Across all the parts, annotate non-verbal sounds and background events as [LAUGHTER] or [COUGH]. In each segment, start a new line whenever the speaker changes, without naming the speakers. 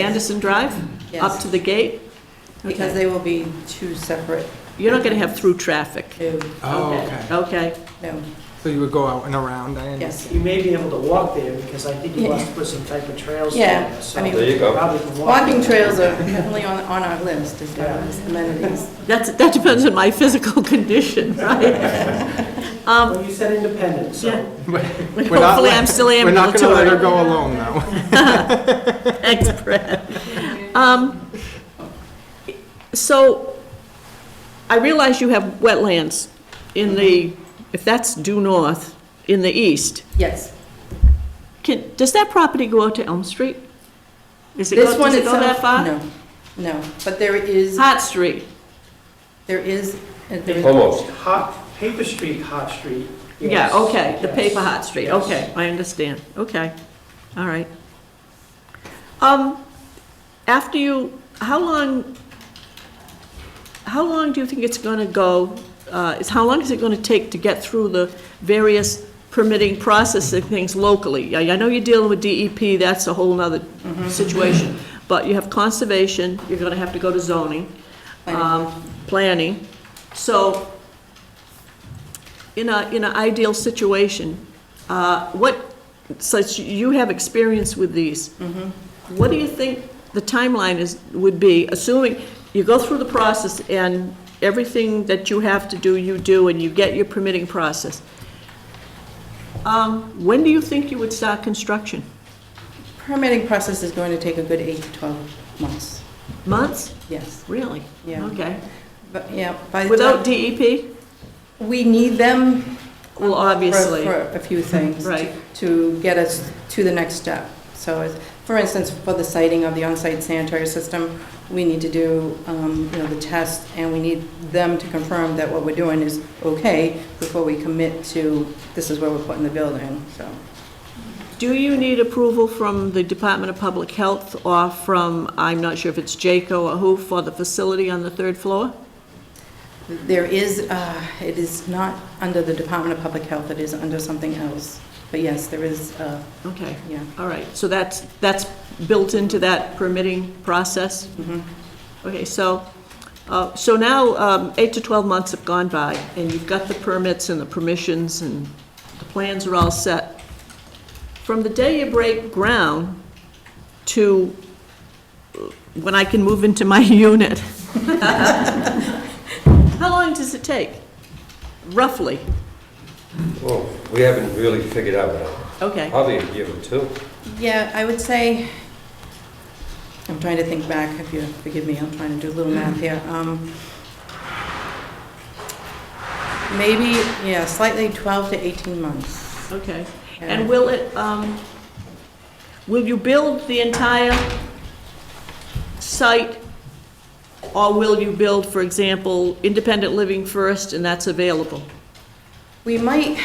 Anderson Drive? Up
Yes.
to the gate?
Because
Okay.
they will be two separate,
You're not going to have through traffic?
two,
Oh, okay.
Okay,
no,
So you would go out and around, I understand.
yes.
You may be able to walk there, because I think you must put some type of trails
Yeah,
there.
I
so
mean-
There you go.
Probably can walk.
Walking trails are definitely on, on our list as far as
[LAUGHS]
amenities.
that's, that depends on my physical [LAUGHS] condition, right? Um,
Well, you said independent,
Yeah.
so.
We're not
Hopefully,
let-
I'm still
We're not gonna let her
ambulatory.
go alone,
[LAUGHS]
though.
Thanks, Brad. Um, So, I realize you have wetlands in the,
Mm-hmm.
if that's due north, in the east.
Yes.
Can, does that property go out to Elm Street? Is it, go-
This one
does it go that
itself,
far?
no, no, but there is,
Hart Street,
there is, there is,
Almost.
Hot, paper street, hot street.
yeah,
yes,
okay, the
yes,
paper Hart Street,
yes.
okay, I understand, okay, all right. Um, after you, how long, how long do you think it's gonna go, uh, is, how long is it gonna take to get through the various permitting processing things locally? I, I know you're dealing with DEP, that's a whole nother
Mm-hmm.
situation, but you have conservation, you're gonna have to go to zoning, um, planning, so, in a, in an ideal situation, uh, what, since you have experience with these,
Mm-hmm.
what do you think the timeline is, would be, assuming you go through the process and everything that you have to do, you do, and you get your permitting process? Um, When do you think you would start construction?
permitting process is going to take a good eight to 12 months,
Months?
yes.
Really?
Yeah.
Okay.
But, yeah, by the
Without
time,
DEP?
we need them
Well,
for
obviously.
for
[LAUGHS]
a few things. to-
Right.
To get us to the next step. So, as- for instance, for the siting of the on-site sanitary system, we need to do, um, you know, the test, and we need them to confirm that what we're doing is okay before we commit to, this is where we're putting the building, so.
Do you need approval from the Department of Public Health or from, I'm not sure if it's Jaco or who, for the facility on the third floor?
There is, uh, it is not under the Department of Public Health, it is under something else. But yes, there is, uh,
Okay,
yeah.
all right, so that's, that's built into that permitting process?
Mhm.
Okay, so, uh, so now, um, eight to 12 months have gone by, and you've got the permits and the permissions, and the plans are all set. From the day you break ground to uh, when I can move into my [LAUGHS] unit, how long does it take, roughly?
Well, we haven't really figured out now.
Okay,
Probably a year or two.
Yeah, I would say, I'm trying to think back, if you forgive me, I'm trying to do a little math here. Um, Maybe, yeah, slightly 12 to 18 months.
okay. And
And
will it, um, will you build the entire site? Or will you build, for example, independent living first and that's available?
we might,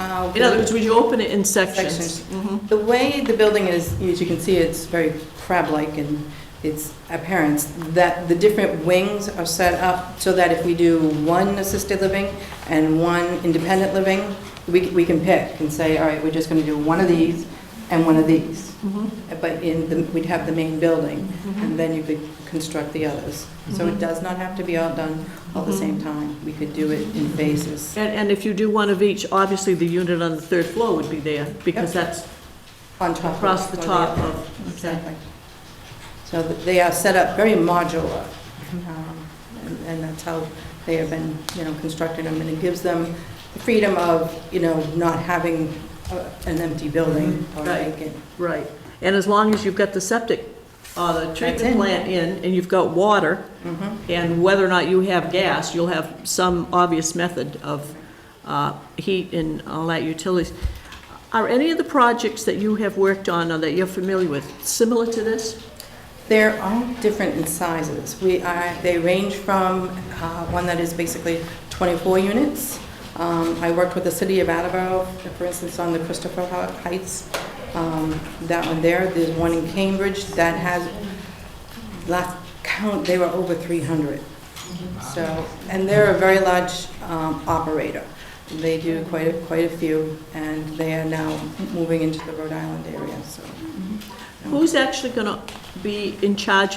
uh,
In other words, would you open it in sections? Mm-hmm,
Sections. the way the building is, as you can see, it's very crab-like and its appearance, that the different wings are set up so that if we do one assisted living and one independent living, we, we can pick and say, all right, we're just going to do one of these and one of these.
mm-hmm,
But in, the- we'd have the main building, and then you could construct the others. So it does not have to be all done all at the same time. We could do it in phases.
And, and if you do one of each, obviously the unit on the third floor would be there because that's
On top of
across the
one
top
another.
of.
Exactly. So th- they are set up very modular, um, and- and that's how they have been, you know, constructed them, and it gives them the freedom of, you know, not having a- an empty building or
Right.
vacant.
Right. And as long as you've got the septic, uh, the treatment
in.
plant in and you've got water,
Mhm.
And whether or not you have gas, you'll have some obvious method of uh, heat and all that utilities. Are any of the projects that you have worked on or that you're familiar with similar to this?
They're all different in sizes. We are, they range from uh, one that is basically 24 units. Um, I worked with the city of Attleboro, for instance, on the Christopher Hou- Heights, um, that one there. There's one in Cambridge that has, last count, they were over 300. So, and they're a very large um, operator. They do quite, a- quite a few, and they are now moving into the Rhode Island area, so.
Who's actually going to be in charge